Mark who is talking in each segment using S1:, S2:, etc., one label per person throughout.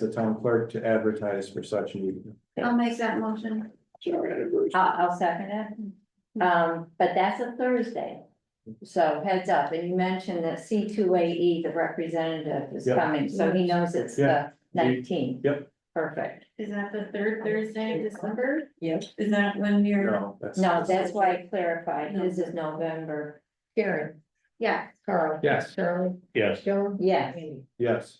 S1: the town clerk to advertise for such meeting.
S2: I'll make that motion.
S3: I'll, I'll second
S4: Mm-hmm.
S3: it. Um, but that's a Thursday. So heads up, and you mentioned that C two A E, the representative is
S1: Yeah.
S3: coming, so he knows it's
S1: Yeah.
S3: the nineteenth.
S1: Yep.
S3: Perfect.
S2: Is that the third Thursday of December?
S4: Yep.
S2: Is that when you're,
S1: No, that's.
S3: No, that's why I clarified, his is November.
S4: Karen,
S2: yeah,
S4: Carl,
S1: Yes,
S4: Charlie,
S5: Yes,
S4: Joan.
S3: Yes.
S4: Amy.
S1: yes.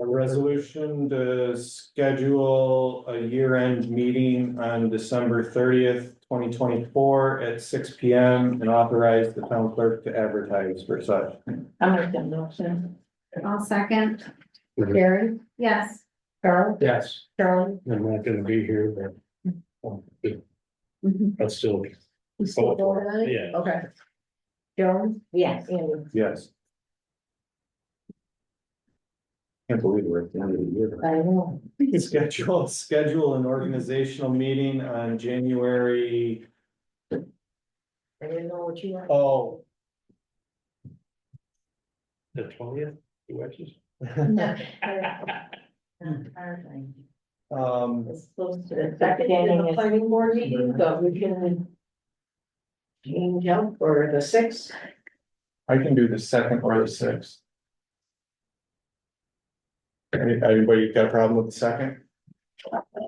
S1: A resolution to schedule a year-end meeting on December thirtieth, twenty twenty-four at six P M. And authorize the town clerk to advertise for such.
S3: I'm with the motion.
S2: I'll second,
S4: Karen,
S2: yes.
S4: Carl,
S5: yes,
S4: Charlie.
S5: I'm not gonna be here, but. I'll still,
S4: You still going on it?
S5: Yeah.
S4: Okay. Joan,
S3: Yes,
S4: Amy.
S1: Yes. Can't believe we're at the end of the year.
S4: I know.
S1: Schedule, schedule an organizational meeting on January,
S4: I didn't know what you were.
S1: oh,
S5: the twentieth, you watches?
S1: um,
S4: It's close to the second in the planning board meeting, but we can. Change up for the sixth.
S1: I can do the second or the sixth. Any- Anybody got a problem with the second?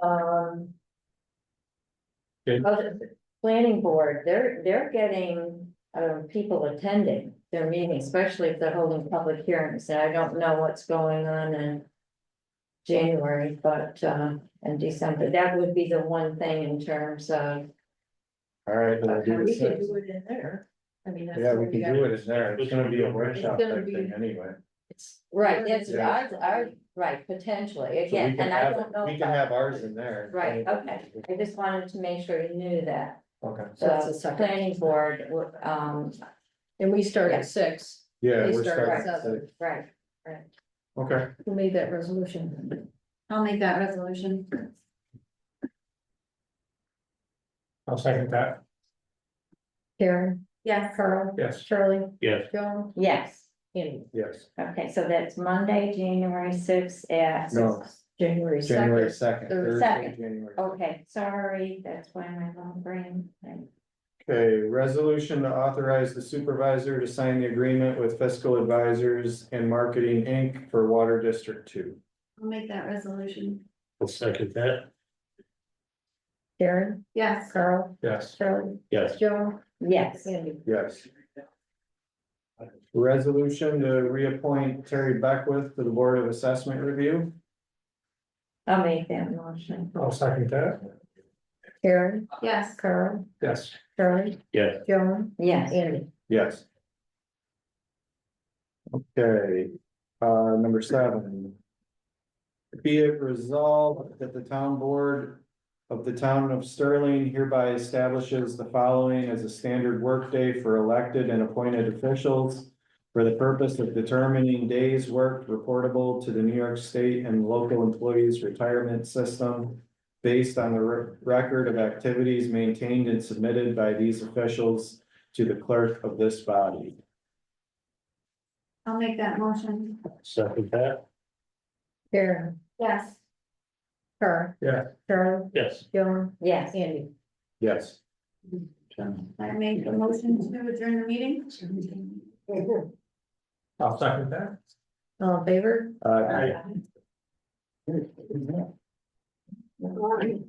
S4: Um.
S1: Okay.
S3: Oh, the planning board, they're, they're getting, um, people attending their meetings, especially if they're holding public hearings, and I don't know what's going on in. January, but, uh, and December, that would be the one thing in terms of,
S1: All right, then I'll do the
S4: We can
S1: sixth.
S4: do it in there. I mean. that's
S1: Yeah, we
S4: what
S1: can do
S4: got.
S1: it, it's there, it's gonna be a workshop
S4: It's gonna
S1: type thing
S4: be-
S1: anyway.
S4: It's-
S3: right, that's,
S1: Yeah.
S3: ours, ours, right, potentially,
S1: So we
S3: again,
S1: can
S3: and I
S1: have-
S3: don't know.
S1: We can
S3: about-
S1: have ours in there.
S3: Right, okay, I just wanted to make sure you knew that,
S1: Okay,
S4: So that's the
S3: the
S4: second.
S3: planning board, um,
S4: And we start
S3: Yeah.
S4: at six.
S1: yeah,
S4: They
S1: we're
S4: start
S1: starting,
S4: at seven.
S1: at six.
S3: right,
S1: okay.
S4: Who made that resolution?
S2: I'll make that resolution.
S5: I'll second that,
S4: Karen,
S2: Yes.
S4: Carl,
S5: yes.
S4: Charlie,
S5: Yes,
S4: Joan,
S3: yes.
S4: Amy.
S1: Yes,
S3: Okay, so that's Monday, January sixth at,
S1: No.
S4: January
S1: January
S4: second.
S1: second,
S4: Oh, third-
S1: Thursday,
S3: second.
S1: January.
S3: okay, sorry, that's why my long brain.
S1: Okay, resolution to authorize the supervisor to sign the agreement with fiscal advisors and marketing Inc. for Water District Two.
S2: I'll make that resolution,
S5: I'll second that,
S4: Karen,
S2: yes.
S4: Carl,
S1: Yes.
S4: Charlie,
S5: yes.
S4: Joan,
S3: Yes,
S4: Amy.
S1: Yes. Resolution to reappoint Terry Beckwith to the Board of Assessment Review.
S3: I'll make that motion.
S5: I'll second that,
S4: Karen,
S2: Yes,
S4: Carl,
S5: yes.
S4: Charlie,
S5: Yeah,
S4: Joan,
S3: Yes,
S4: Amy.
S1: Yes. Okay, uh, number seven. Be it resolved that the town board of the town of Sterling hereby establishes the following as a standard workday for elected and appointed officials. For the purpose of determining days worked reportable to the New York State and local employees retirement system. Based on the re- record of activities maintained and submitted by these officials to the clerk of this body.
S2: I'll make that motion,
S5: second that,
S4: Karen,
S2: yes.
S4: Carl.
S1: Yeah.
S4: Charlie,
S5: yes.
S4: Joan,
S3: yes,
S4: Amy.
S1: Yes.
S2: I make the motion to adjourn the meeting.
S5: I'll second that.
S4: All in favor?
S1: Uh,
S5: Aye.